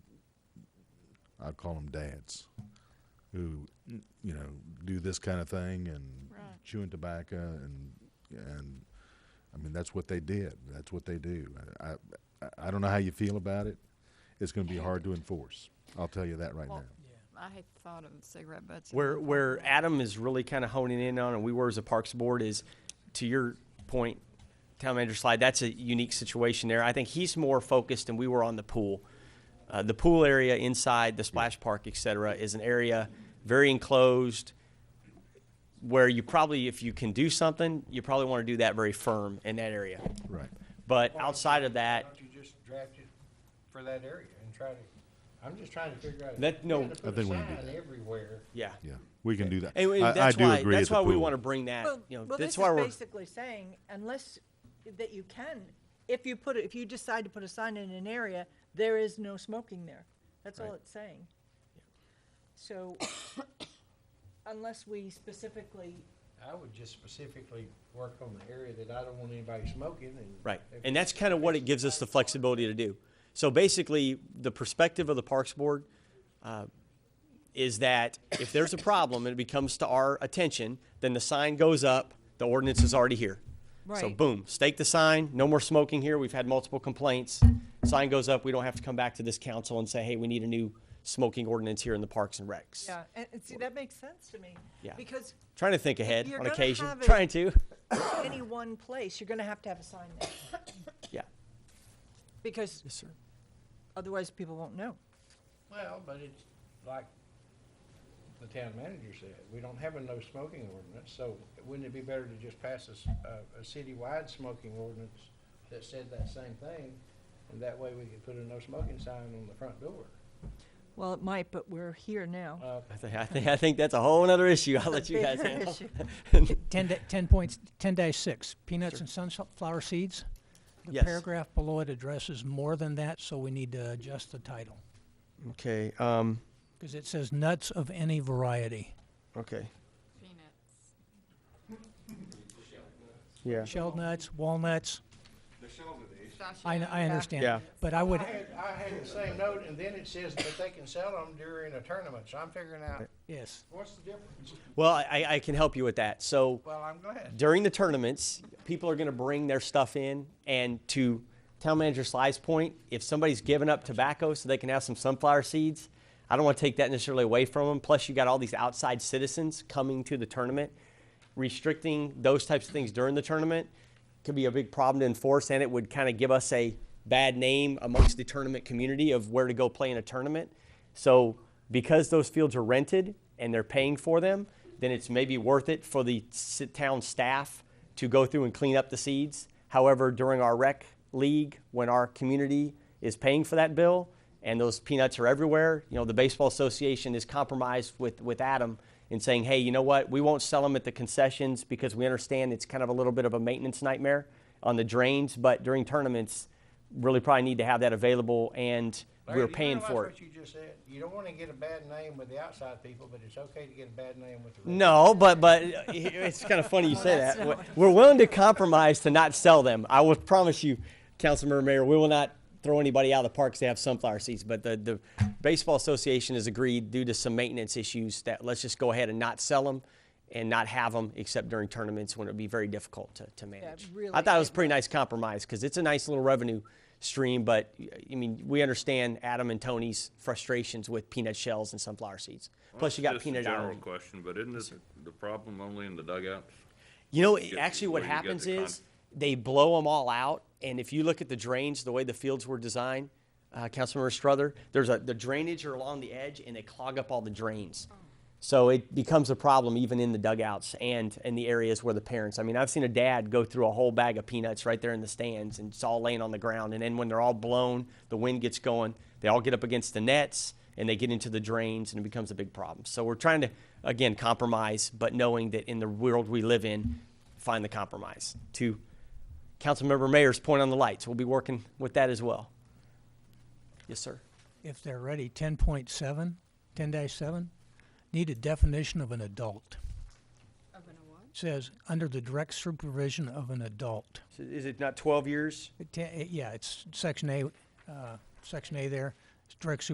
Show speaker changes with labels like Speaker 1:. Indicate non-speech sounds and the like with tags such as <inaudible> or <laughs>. Speaker 1: I'd call them dads, who, you know, do this kind of thing and
Speaker 2: Right.
Speaker 1: chewing tobacco and and I mean that's what they did. That's what they do. I I, I don't know how you feel about it. It's going to be hard to enforce. I'll tell you that right
Speaker 2: Well,
Speaker 1: now.
Speaker 2: I hate the thought of cigarette butts. in
Speaker 3: Where
Speaker 2: my
Speaker 3: where
Speaker 2: apartment.
Speaker 3: Adam is really kind of honing in on, and we were as a Parks Board is, to your point, Town Manager Slide. That's a unique situation there. I think he's more focused, and we were on the pool. Uh, the pool area inside the splash park, et cetera, is an area very enclosed where you probably, if you can do something, you probably want to do that very firm in that area.
Speaker 1: Right.
Speaker 3: But outside of that,
Speaker 4: Why don't you just draft it for that area and try to, I'm just trying to figure out. if
Speaker 3: That- no.
Speaker 4: you're gonna
Speaker 3: I
Speaker 4: put
Speaker 1: think we
Speaker 4: a
Speaker 1: can do
Speaker 4: sign
Speaker 1: that.
Speaker 4: Everywhere.
Speaker 3: yeah.
Speaker 1: Yeah. We can do that.
Speaker 3: And, and
Speaker 1: I,
Speaker 3: that's
Speaker 1: I do
Speaker 3: why
Speaker 1: agree.
Speaker 3: that's
Speaker 1: at
Speaker 3: why
Speaker 1: the
Speaker 3: we
Speaker 1: pool.
Speaker 3: want to bring that. you know,
Speaker 5: well,
Speaker 3: that's
Speaker 5: this
Speaker 3: why
Speaker 5: is
Speaker 3: we're
Speaker 5: basically saying unless that you can, if you put it, if you decide to put a sign in an area, there is no smoking there. That's all
Speaker 3: Right.
Speaker 5: it's saying. So unless we specifically,
Speaker 4: I would just specifically work on the area that I don't want anybody smoking and.
Speaker 3: Right.
Speaker 4: if-
Speaker 3: And that's kind of what it gives us the flexibility to do. So basically, the perspective of the Parks Board uh, is that if there's a problem and it becomes to our attention, then the sign goes up, the ordinance is already here. So
Speaker 5: Right.
Speaker 3: boom, stake the sign, no more smoking here. We've had multiple complaints. Sign goes up, we don't have to come back to this council and say, hey, we need a new smoking ordinance here in the Parks and Recs.
Speaker 5: yeah, and, and see, that makes sense to me.
Speaker 3: Yeah.
Speaker 5: Because
Speaker 3: Trying to think ahead
Speaker 5: You're
Speaker 3: on
Speaker 5: gonna
Speaker 3: occasion,
Speaker 5: have it-
Speaker 3: trying to,
Speaker 5: any one place, you're gonna have to have a sign there,
Speaker 3: yeah.
Speaker 5: because
Speaker 3: Yes, sir.
Speaker 5: otherwise people won't know.
Speaker 4: Well, but it's like the town manager said, we don't have a no smoking ordinance, so wouldn't it be better to just pass a, s- a- a citywide smoking ordinance that said that same thing? And that way we could put a no smoking sign on the front door.
Speaker 5: Well, it might, but we're here now.
Speaker 4: Uh,
Speaker 3: I think, I think, I think that's a whole other issue. I'll let you guys
Speaker 5: <laughs> Bigger
Speaker 3: handle.
Speaker 5: issue.
Speaker 6: 10, da- 10 points, 10 dash 6, peanuts and sunflower seeds. The
Speaker 3: Yes.
Speaker 6: paragraph below it addresses more than that, so we need to adjust the title.
Speaker 3: Okay, um,
Speaker 6: Because it says nuts of any variety.
Speaker 3: okay,
Speaker 2: Peanuts.
Speaker 3: yeah.
Speaker 6: Shelled nuts, walnuts, I, kn- I
Speaker 5: Yeah.
Speaker 6: understand.
Speaker 3: Yeah.
Speaker 6: But I would,
Speaker 4: I had, I had the same note, and then it says that they can sell them during a tournament, so I'm figuring out,
Speaker 6: yes,
Speaker 4: what's the difference?
Speaker 3: Well, I, I can help you with that. So
Speaker 4: Well, I'm glad.
Speaker 3: during the tournaments, people are gonna bring their stuff in and to town manager Sly's point, if somebody's giving up tobacco so they can have some sunflower seeds, I don't wanna take that necessarily away from them. Plus you got all these outside citizens coming to the tournament. Restricting those types of things during the tournament could be a big problem to enforce and it would kinda give us a bad name amongst the tournament community of where to go play in a tournament. So because those fields are rented and they're paying for them, then it's maybe worth it for the s- town staff to go through and clean up the seeds. However, during our rec league, when our community is paying for that bill and those peanuts are everywhere, you know, the baseball association is compromised with, with Adam in saying, hey, you know what, we won't sell them at the concessions because we understand it's kind of a little bit of a maintenance nightmare on the drains, but during tournaments, really probably need to have that available and
Speaker 4: Larry,
Speaker 3: we're
Speaker 4: do you
Speaker 3: paying
Speaker 4: realize
Speaker 3: for it.
Speaker 4: What you just said, you don't wanna get a bad name with the outside people, but it's okay to get a bad name with the. rest.
Speaker 3: No, but but it's kind of funny you say that. We're- We're willing to compromise to not sell them. I will promise you, Councilmember Mayor, we will not throw anybody out of the parks to have sunflower seeds. But the the baseball association has agreed due to some maintenance issues that let's just go ahead and not sell them and not have them except during tournaments when it would be very difficult to, to manage.
Speaker 5: really,
Speaker 3: I thought it
Speaker 5: it
Speaker 3: was a pretty nice compromise because it's a nice little revenue stream, but I mean, we understand Adam and Tony's frustrations with peanut shells and sunflower seeds. Plus you got
Speaker 7: Just a
Speaker 3: peanut
Speaker 7: General
Speaker 3: allergy.
Speaker 7: question, but isn't this the problem only in the dugouts?
Speaker 3: You know, it-
Speaker 7: get-
Speaker 3: actually, what
Speaker 7: where you get
Speaker 3: happens
Speaker 7: the con-
Speaker 3: is they blow them all out, and if you look at the drains, the way the fields were designed, uh, Councilmember Struther, there's a the drainage are along the edge, and they clog up all the drains. So it becomes a problem even in the dugouts and in the areas where the parents. I mean, I've seen a dad go through a whole bag of peanuts right there in the stands, and it's all laying on the ground. And then when they're all blown, the wind gets going, they all get up against the nets, and they get into the drains, and it becomes a big problem. So we're trying to again compromise, but knowing that in the world we live in, find the compromise. To Councilmember Mayor's point on the lights, we'll be working with that as well. Yes, sir.
Speaker 6: if they're ready, 10.7, 10 dash 7, need a definition of an adult.
Speaker 2: Open a what?
Speaker 6: Says, under the direct supervision of an adult. eh,
Speaker 3: So Is it not 12 years?
Speaker 6: It ta- it- Yeah, it's section A, uh, section A there, it's direct supervision